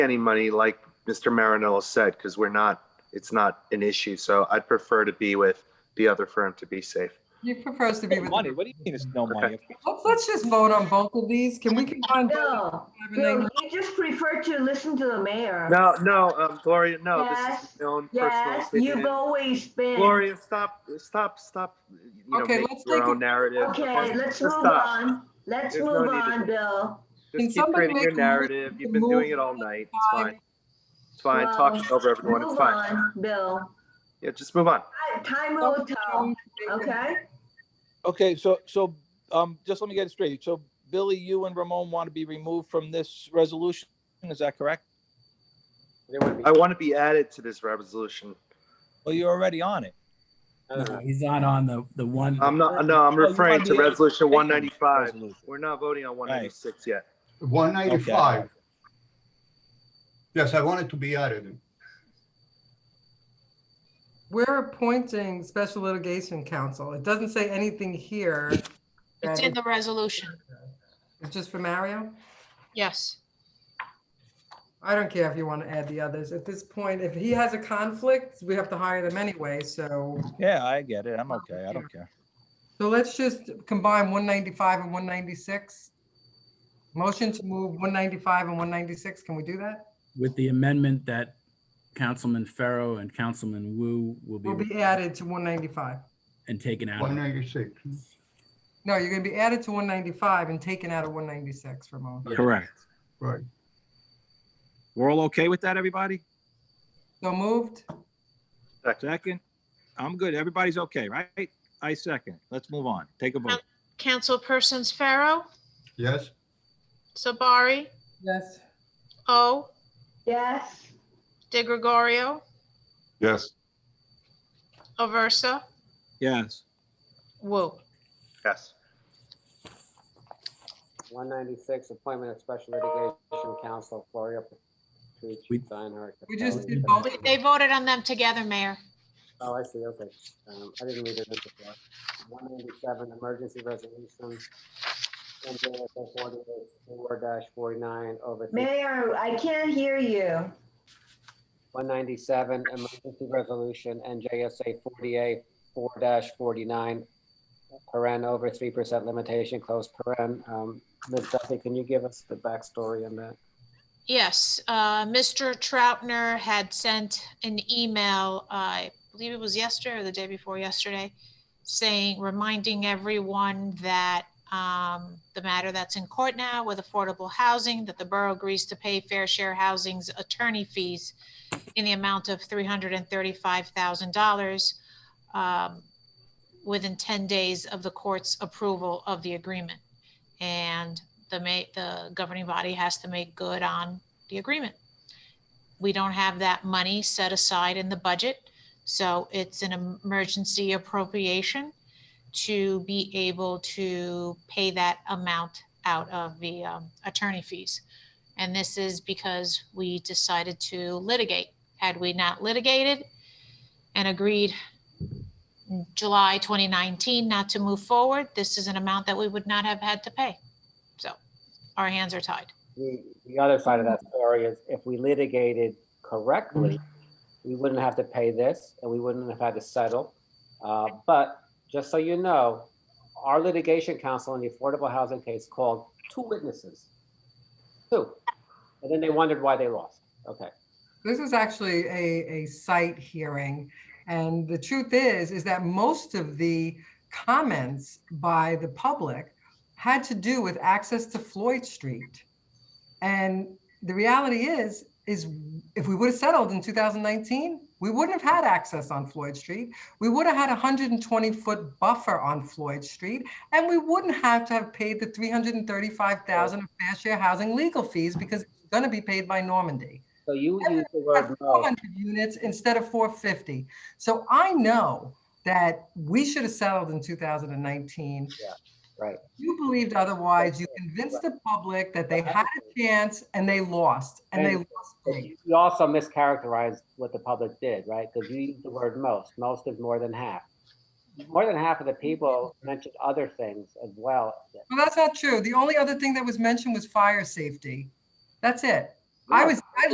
any money, like Mr. Marinello said, because we're not, it's not an issue. So I'd prefer to be with the other firm to be safe. He prefers to be No with. money, what do you mean it's no money? Let's, let's just vote on both of these. Can we combine? both Bill, and Bill, then- you just prefer to listen to the mayor. No, no, um, Gloria, no, this Yes, is my own personal Yes, you've opinion. always been. Gloria, stop, stop, stop, you know, Okay, make let's your take a- own narrative. Okay, let's move stop. on. Let's There's no move need to- on, Bill. Can Just keep somebody creating your make a motion narrative. You've to been move doing it all night. It's fine. It's fine. Well, Talking over everyone. It's Move fine. on, Bill. Yeah, just move on. Ti- Time will tell, okay? Okay, so, so, um, just let me get it straight. So Billy, you and Ramon want to be removed from this resolution, is that correct? They wanna be- I want to be added to this resolution. Well, you're already on it. No, He's not on the, the one. I'm not, no, I'm Well, you referring wanna to be- resolution one ninety-five. Resolution. We're not voting on one ninety-six yet. 195. Yes, I wanted to be added. We're appointing special litigation counsel. It doesn't say anything here. that It's in the resolution, It's just for Mario? yes. I don't care if you want to add the others. At this point, if he has a conflict, we have to hire them anyway, so. Yeah, I get it. I'm okay. I don't care. So let's just combine 195 and 196. Motion to move 195 and 196, can we do that? With the amendment that Councilman Farrow and Councilman Wu will Will be be added to 195. and taken out. of it. 196. No, you're going to be added to 195 and taken out of 196, Ramon. Correct. Right. We're all okay with that, everybody? So moved? Second? I'm good. Everybody's okay, right? I second. Let's move on. Take a vote. Councilpersons Pharaoh, Yes, Sabari, Yes. O, Yes, De Gregorio, yes. Aversa, Yes. Woo. Yes. 196, appointment of special litigation counsel, Gloria We- Petrucci, Steinhardt. We Oh, just Capelli. did both. They voted on them together, Mayor. Oh, I see, okay. Um, I didn't read it in before. 197, emergency resolution. NJSA 48-4-49 over. Mayor, I can't hear you. 197, emergency resolution, NJSA 48-4-49, paren over 3% limitation, close paren. Um, Ms. Duffy, can you give us the backstory on that? Yes, uh, Mr. Troutner had sent an email, I believe it was yesterday or the day before yesterday, saying, reminding everyone that um, the matter that's in court now with affordable housing, that the borough agrees to pay fair share housing's attorney fees in the amount of $335,000 um, within 10 days of the court's approval of the agreement. And the ma, the governing body has to make good on the agreement. We don't have that money set aside in the budget, so it's an emergency appropriation to be able to pay that amount out of the um, attorney fees. And this is because we decided to litigate. Had we not litigated and agreed in July 2019 not to move forward, this is an amount that we would not have had to pay. So our hands are tied. The, the other side of that story is if we litigated correctly, we wouldn't have to pay this and we wouldn't have had to settle. Uh, But just so you know, our litigation counsel in the affordable housing case called two witnesses. Two. And then they wondered why they lost. Okay. This is actually a, a site hearing. And the truth is, is that most of the comments by the public had to do with access to Floyd Street. And the reality is, is if we would have settled in 2019, we wouldn't have had access on Floyd Street. We would have had a 120 foot buffer on Floyd Street, and we wouldn't have to have paid the 335,000 of fair share housing legal fees because it's going to be paid by Normandy So you Everyone use the have word no. 400 units instead of 450. So I know that we should have settled in 2019. Yeah, right. You believed otherwise. You convinced the public that they had a chance and they lost, and they And- lost But big. You you also mischaracterized what the public did, right? Because you used the word most. Most is more than half. More than half of the people mentioned other things as well. Well, that's not true. The only other thing that was mentioned was fire safety. That's it. I was, I